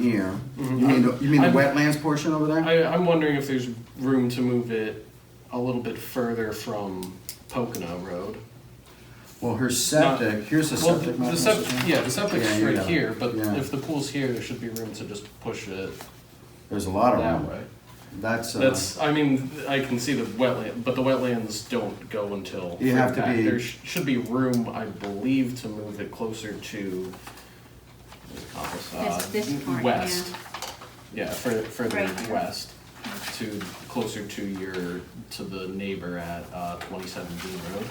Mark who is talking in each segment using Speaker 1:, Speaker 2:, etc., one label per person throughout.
Speaker 1: here. You
Speaker 2: Mhm.
Speaker 1: mean, the- you mean the
Speaker 2: I'm-
Speaker 1: wetlands portion over there?
Speaker 2: I, I'm wondering if there's room to move it a little bit further from Pocono Road.
Speaker 1: Well, her septic, here's the
Speaker 2: Well,
Speaker 1: septic.
Speaker 2: the
Speaker 1: map,
Speaker 2: septic,
Speaker 1: isn't it?
Speaker 2: yeah, the septic's
Speaker 1: Yeah, you
Speaker 2: right
Speaker 1: got it.
Speaker 2: here, but
Speaker 1: Yeah.
Speaker 2: if the pool's here, there should be room to just push it
Speaker 1: There's a lot of
Speaker 2: that
Speaker 1: room.
Speaker 2: way.
Speaker 1: Oh, That's, uh,
Speaker 2: That's, I mean, I can see the wetland, but the wetlands don't go until.
Speaker 1: You have to
Speaker 2: back.
Speaker 1: be-
Speaker 2: There sh- should be room, I believe, to move it closer to, what's it called, uh,
Speaker 3: This- this part,
Speaker 2: West. Yeah, fur- further
Speaker 3: Right.
Speaker 2: west, to, closer to your, to the neighbor at, uh, twenty-seven Dean Road.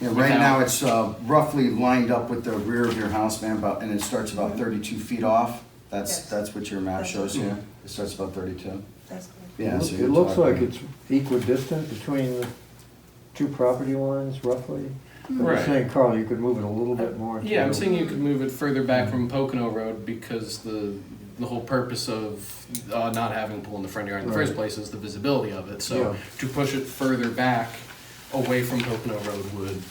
Speaker 1: yeah, right now
Speaker 2: without-
Speaker 1: it's uh, roughly lined up with the rear of your house, man, about, and it starts about
Speaker 2: Mm-hmm.
Speaker 1: thirty-two feet off. That's,
Speaker 4: Yes.
Speaker 1: that's what your map
Speaker 4: That's-
Speaker 1: shows you. It starts about thirty-two.
Speaker 4: That's good.
Speaker 1: Yeah. so
Speaker 5: It
Speaker 1: you're
Speaker 5: looks
Speaker 1: talking-
Speaker 5: like it's equidistant between the two property lines roughly. I'm
Speaker 2: Right.
Speaker 5: just saying, Carl, you could move it a little bit more.
Speaker 2: Yeah, I'm
Speaker 5: to-
Speaker 2: saying you could move it further back from Pocono Road because the, the whole purpose of uh, not having a pool in the front yard in the first
Speaker 5: Right.
Speaker 2: place is the visibility of it. So
Speaker 5: Yeah.
Speaker 2: to push it further back away from Pocono Road would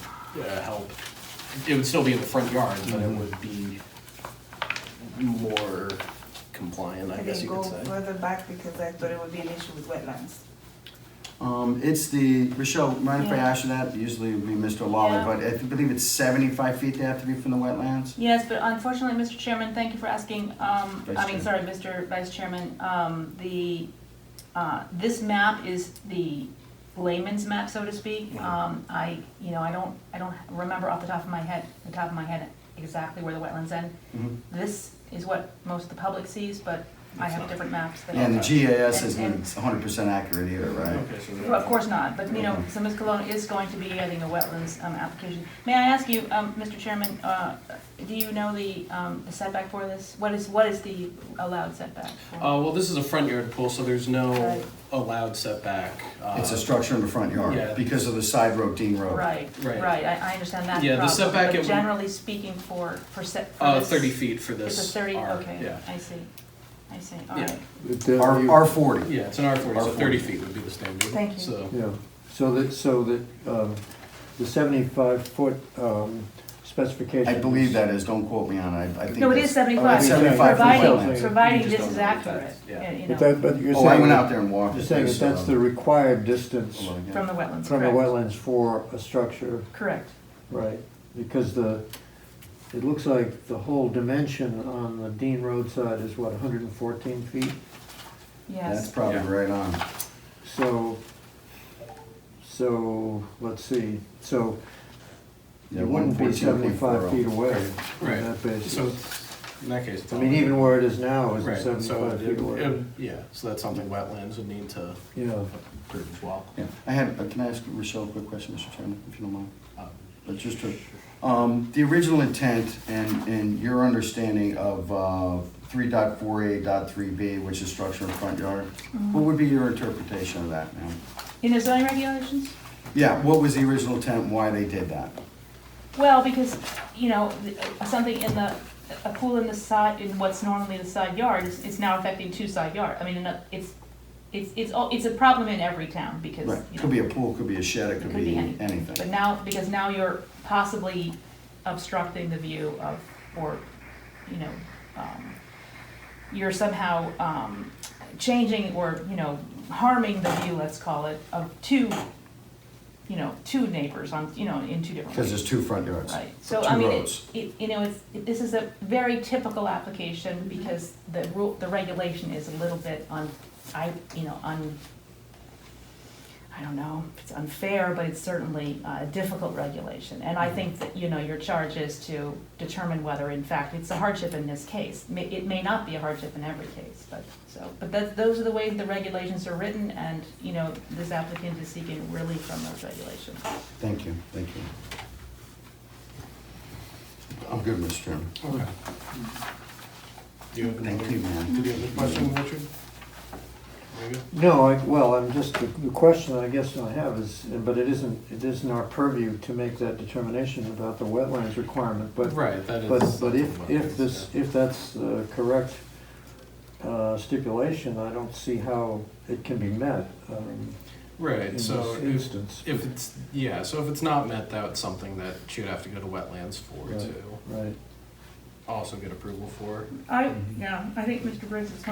Speaker 2: uh, help. It would still be in the front yard, but it
Speaker 5: Mhm.
Speaker 2: would be more compliant, I
Speaker 4: I
Speaker 2: guess
Speaker 4: didn't
Speaker 2: you
Speaker 4: go
Speaker 2: could say.
Speaker 4: further back because I thought it would be an issue with wetlands.
Speaker 1: Um, it's the, Rochelle, mind if I
Speaker 6: Yeah.
Speaker 1: ask you that? Usually it would be Mr. Lawler,
Speaker 6: Yeah.
Speaker 1: but I believe it's seventy-five feet they have to be from the wetlands?
Speaker 6: Yes, but unfortunately, Mr. Chairman, thank you for asking, um,
Speaker 1: Vice
Speaker 6: I mean,
Speaker 1: Chair.
Speaker 6: sorry, Mr. Vice Chairman, um, the, uh, this map is the layman's map, so to speak. Um, I, you know, I don't, I don't remember off the top of my head, the top of my head exactly where the wetlands end.
Speaker 1: Mhm.
Speaker 6: This is what most of the public sees, but I
Speaker 2: It's
Speaker 6: have
Speaker 2: not.
Speaker 6: different maps that.
Speaker 1: And the GIS
Speaker 6: And-
Speaker 1: isn't hundred percent accurate either, right?
Speaker 2: Okay, so
Speaker 6: Well, Of course not, but, you know, so Ms. Cologne is going to be adding a wetlands um, application. May I ask you, um, Mr. Chairman, uh, do you know the um, the setback for this? What is, what is the allowed setback? for-
Speaker 2: Uh, well, this is a front yard pool, so there's no
Speaker 6: Right.
Speaker 2: allowed setback. uh,
Speaker 1: It's a structure in the front
Speaker 2: Yeah.
Speaker 1: yard because of the side road, Dean Road.
Speaker 6: Right,
Speaker 2: right.
Speaker 6: right, I I understand that
Speaker 2: Yeah, the
Speaker 6: problem,
Speaker 2: setback it
Speaker 6: But
Speaker 2: would-
Speaker 6: generally speaking for, for set. for
Speaker 2: Uh,
Speaker 6: this-
Speaker 2: thirty feet for this.
Speaker 6: It's a 30,
Speaker 2: R,
Speaker 6: okay,
Speaker 2: Yeah.
Speaker 6: I see, I see, all
Speaker 2: Yeah.
Speaker 6: right.
Speaker 5: It does-
Speaker 1: R,
Speaker 5: you-
Speaker 1: R forty.
Speaker 2: Yeah, it's an R forty, so
Speaker 1: R40.
Speaker 2: thirty feet would be the standard.
Speaker 4: Thank you.
Speaker 2: So,
Speaker 5: Yeah, so that, so that, um, the seventy-five foot, um, specification.
Speaker 1: I believe
Speaker 5: is-
Speaker 1: that is, don't quote me on it, I, I think.
Speaker 6: No, it
Speaker 1: that's-
Speaker 6: is 75.
Speaker 1: Oh, it's seventy-five from
Speaker 5: Providing-
Speaker 1: wetlands.
Speaker 2: You
Speaker 6: Providing
Speaker 2: just
Speaker 6: this
Speaker 2: don't
Speaker 6: is
Speaker 2: know what that
Speaker 6: accurate,
Speaker 2: is, yeah.
Speaker 6: you
Speaker 5: But that,
Speaker 6: know,
Speaker 5: but you're saying.
Speaker 1: Oh, I went out there and walked.
Speaker 5: You're
Speaker 1: it.
Speaker 5: saying
Speaker 1: There's,
Speaker 5: that that's the
Speaker 1: uh,
Speaker 5: required distance
Speaker 1: hold on again.
Speaker 6: from the wetlands,
Speaker 5: from the
Speaker 6: correct,
Speaker 5: wetlands for a structure,
Speaker 6: correct.
Speaker 5: right? Because the, it looks like the whole dimension on the Dean Road side is what, hundred and fourteen feet?
Speaker 6: Yes.
Speaker 1: That's probably
Speaker 2: Yeah.
Speaker 1: right on.
Speaker 5: So, so, let's see, so
Speaker 1: Yeah,
Speaker 5: it wouldn't be
Speaker 1: 114.40.
Speaker 5: seventy-five feet away
Speaker 2: Right.
Speaker 5: on that
Speaker 2: so
Speaker 5: basis.
Speaker 2: it's- in that case, it's
Speaker 5: I
Speaker 2: all-
Speaker 5: mean, even where it is now
Speaker 2: Right,
Speaker 5: is
Speaker 2: so
Speaker 5: seventy-five
Speaker 2: it-
Speaker 5: feet away.
Speaker 2: it- Yeah, so that's something wetlands would need to
Speaker 5: Yeah,
Speaker 2: approve as well.
Speaker 1: Yeah, I had, uh, can I ask Rochelle a quick question, Mr. Chairman, if you don't mind?
Speaker 2: Um,
Speaker 1: But just to, um, the original intent and, and your understanding of, uh, three dot four A dot three B, which is structure in front yard,
Speaker 6: Mm-hmm.
Speaker 1: what would be your interpretation of that, ma'am?
Speaker 6: In the zoning regulations?
Speaker 1: Yeah, what was the original intent, and why they did that?
Speaker 6: Well, because, you know, th- something in the, a pool in the side, in what's normally the side yard is, is now affecting two side yard. I mean, in a- it's, it's, it's, all it's a problem in every town because,
Speaker 1: Right,
Speaker 6: you know.
Speaker 1: could be a pool, could be a shed, it could be
Speaker 6: any- But
Speaker 1: anything.
Speaker 6: now, because now you're possibly obstructing the view of, or, you know, um, you're somehow, um, changing or, you know, harming the view, let's call it, of two, you know, two neighbors on, you know, in two different ways.
Speaker 1: Because there's two front yards.
Speaker 6: Right, so
Speaker 1: two
Speaker 6: I mean, it,
Speaker 1: roads.
Speaker 6: it, you know, it's, it- this is a very typical application because the rule, the regulation is a little bit on, I, you know, un, I don't know, it's unfair, but it's certainly uh, a difficult regulation. And
Speaker 1: Mm-hmm.
Speaker 6: I think that, you know, your charge is to determine whether in fact it's a hardship in this case. May- It may not be a hardship in every case, but, so, but that, those are the ways the regulations are written and, you know, this applicant is seeking relief from those regulations.
Speaker 1: Thank you, thank you. I'm good, Mr. Chairman.
Speaker 2: Okay. Do you have another?
Speaker 1: Thank you, ma'am.
Speaker 2: Did you have a question, Richard? There you go.
Speaker 5: no, I, well, I'm just, the the question I guess I have is, but it isn't, it isn't our purview to make that determination about the wetlands requirement, but
Speaker 2: Right, that is.
Speaker 5: But, but if,
Speaker 2: something
Speaker 5: if
Speaker 2: wetlands,
Speaker 5: this,
Speaker 2: yeah.
Speaker 5: if that's the correct uh, stipulation, I don't see how it can be met um, in
Speaker 2: Right,
Speaker 5: this
Speaker 2: so if,
Speaker 5: instance.
Speaker 2: if it's, yeah, so if it's not met, that's something that you'd have to go to wetlands for
Speaker 5: Right.
Speaker 2: too.
Speaker 5: Right,
Speaker 2: also get approval for.
Speaker 1: Mm-hmm.
Speaker 6: I, yeah, I think Mr. Briggs is